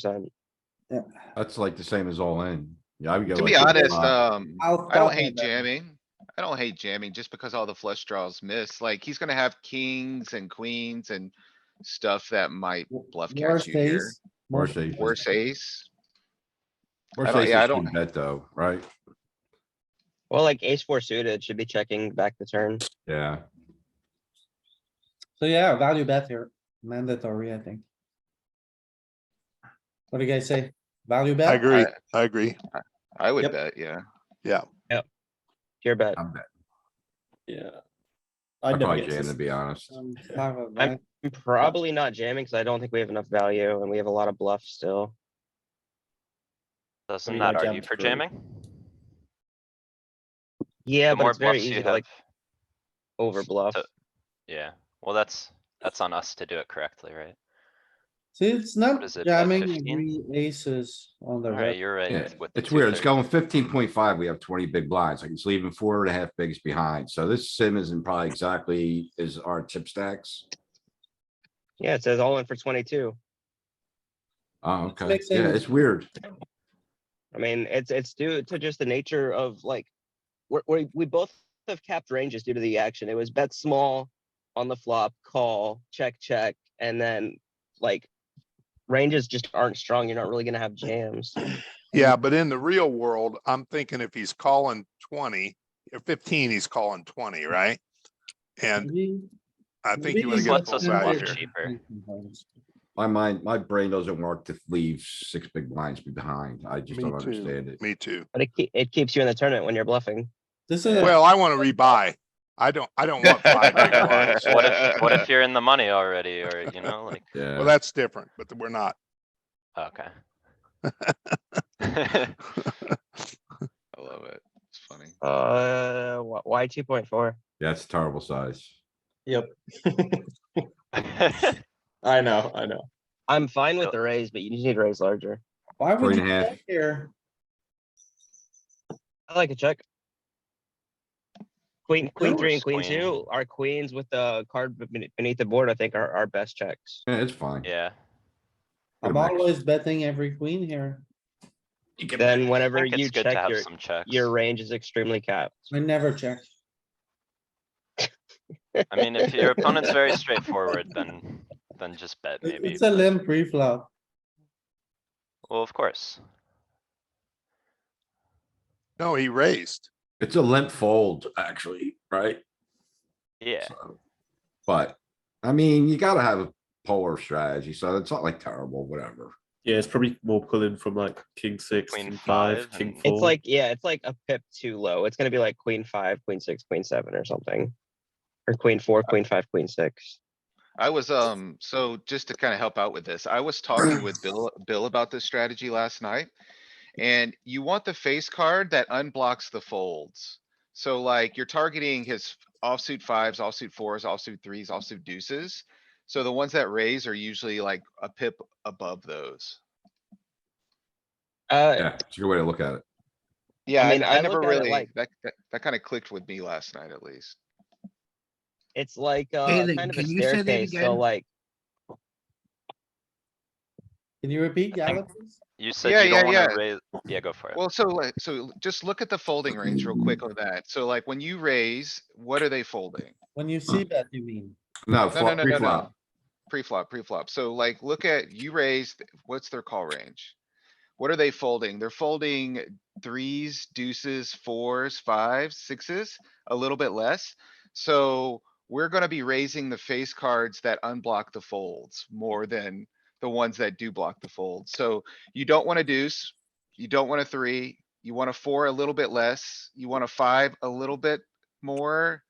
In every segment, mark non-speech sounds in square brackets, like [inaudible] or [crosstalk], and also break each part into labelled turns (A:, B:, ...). A: percent.
B: That's like the same as all in. Yeah, I would go.
C: To
B: like
C: be
B: this a
C: honest,
B: lot.
C: um,
D: I'll
C: I don't
D: stop
C: hate
D: with that.
C: jamming. I don't hate jamming just because all the flush draws miss. Like, he's gonna have kings and queens and stuff that might bluff catch
D: Worst
C: you here.
D: ace,
B: Worse aces.
C: Worse ace.
B: Worse
C: I don't-
B: aces
C: yeah, I
B: can
C: don't-
B: bet though, right?
A: Well, like ace four suited should be checking back the turn.
B: Yeah,
D: So yeah, value bet here, mandatory, I think. What do you guys say? Value bet?
E: I agree, I agree.
C: I would
D: Yep.
C: bet, yeah.
A: Your bet.
F: Um,
B: I'm bet-
D: Yeah.
B: I'd probably jam to be honest.
D: I'm fine with
A: I'm-
D: that.
A: I'm probably not jamming because I don't think we have enough value and we have a lot of bluff still.
F: Doesn't
D: you
F: that
D: gotta
F: argue
D: jump
F: for
D: through.
F: jamming?
A: Yeah,
F: The
A: but
F: more
A: it's very
F: bluffs you
A: easy to
F: have,
A: like over bluff.
F: to- yeah, well, that's, that's on us to do it correctly, right?
D: See, it's
F: What
D: not
F: is it, bet
D: jamming
F: 15?
D: three aces on the
F: Alright,
D: red.
F: you're
B: Yeah,
F: right. with the
B: it's weird. It's
F: 230.
B: going fifteen point five. We have twenty big blinds. Like it's leaving four and a half bigs behind. So this sim isn't probably exactly is our chip stacks.
A: Yeah, it says all in for twenty-two.
B: Oh, okay.
D: Makes
B: Yeah,
D: sense.
B: it's weird.
A: I mean, it's, it's due to just the nature of like, we're, we, we both have capped ranges due to the action. It was bet small on the flop, call, check, check, and then like ranges just aren't strong. You're not really gonna have jams.
E: Yeah, but in the real world, I'm thinking if he's calling twenty or fifteen, he's calling twenty, right? And
D: Maybe-
E: I think
D: maybe
E: you would
F: This
D: you
E: get
F: lets
D: can
E: full
F: us
D: consider
F: bluff
E: value
D: it.
E: here.
F: cheaper.
B: My mind, my brain doesn't work to leave six big blinds behind. I just
E: Me
B: don't
E: too.
B: understand it.
E: Me too.
A: But it, ke- it keeps you in the tournament when you're bluffing.
D: This is.
E: Well, I want to rebuy. I don't, I don't want five big blinds.
B: [laughs]
F: What if, what if you're in the money already, or, you know, like,
B: Yeah.
E: Well, that's different, but we're not.
B: [laughs]
F: okay.
C: I love it. It's funny.
A: Uh, wh- why two point four?
B: That's terrible size.
D: I know, I know.
A: I'm fine with
F: Yep.
A: the raise, but you just need to raise larger.
D: Why would
B: Three
D: you
B: and a half.
D: check here?
A: I like a check. Queen, queen three and queen
F: Queen.
A: two are queens with the card be- bene- beneath the board, I think are our best checks.
B: Yeah, it's fine.
F: [laughs] Yeah,
D: I'm
B: Mix.
D: always betting every queen here.
A: Then
F: I
A: whenever
F: think
A: you
F: it's good to
A: check
F: have
A: your,
F: some checks.
A: your range is extremely capped.
D: I never check.
F: I mean, if your opponent's very straightforward, then, then just bet
D: It-
F: maybe.
D: It's a limp pre-flop.
F: Well, of course.
E: No, he raised.
B: It's a limp fold, actually, right?
F: Yeah,
B: So, But, I mean, you gotta have a polar strategy, so it's not like terrible, whatever.
G: Yeah, it's probably more pulling from like king six,
F: Queen
G: king five,
F: five
G: king
F: and-
G: four.
A: It's like, yeah, it's like a pip too low. It's gonna be like queen five, queen six, queen seven or something. Or queen
F: Uh.
A: four, queen five, queen six.
C: I was, um, so just to kind of help out with this, I was
A: [clears throat]
C: talking with Bill, Bill about this strategy last night. And you want the face card that unblocks the folds. So like you're targeting his offsuit fives, offsuit fours, offsuit threes, offsuit deuces. So the ones that raise are usually like a pip above those.
A: Uh,
B: Yeah, it's a good way to look at it.
C: Yeah,
A: mean,
C: I,
A: I
C: I never
A: look at it
C: really,
A: like-
C: that, that, that kind of clicked with me last night at least.
A: it's like, uh, kind of a staircase, so like,
D: Can you repeat,
F: I
D: Gavin?
F: think- you said
C: Yeah,
F: you don't
C: yeah,
F: wanna raise, yeah, go for it.
C: Well, so like, so just look at the folding range real quick on that. So like when you raise, what are they folding?
D: When you
F: Hmm.
D: see that, you mean?
B: No,
C: No, no,
B: flop,
C: no, no, no.
B: pre-flop.
C: Pre-flop, pre-flop. So like, look at, you raise, th- what's their call range? What are they folding? They're folding threes, deuces, fours, fives, sixes, a little bit less. So we're gonna be raising the face cards that unblock the folds more than the ones that do block the fold. So you don't want a deuce, you don't want a three, you want a four a little bit less, you want a five a little bit more,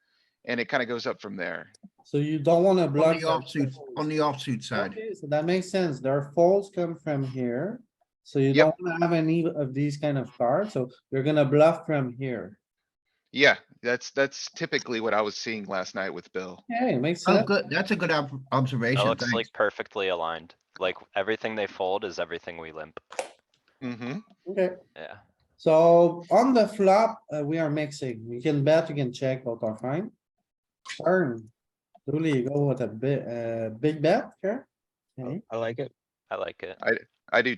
C: and it kind of goes up from there.
D: So you don't wanna
H: On
D: block.
H: the
D: their
H: offsuit,
D: folds.
H: on the offsuit side.
D: Okay, so that makes sense. Their folds come from here. So you
C: Yep.
D: don't wanna have any of these kind of cards, so you're gonna bluff from here.
C: Yeah, that's, that's typically what I was seeing last night with Bill.
D: Okay, makes
H: Oh,
D: sense.
H: good, that's a good ob-
F: That
H: observation,
F: looks
H: thanks.
F: like perfectly aligned, like everything they fold is everything we limp,
C: Mm-hmm.
D: Okay,
F: yeah.
D: so on the flop, uh, we are mixing. You can bet, you can check, both are fine. Turn. Dooley, you go with a big, uh, big bet here. Okay.
A: I like it.
F: I like it.
C: I do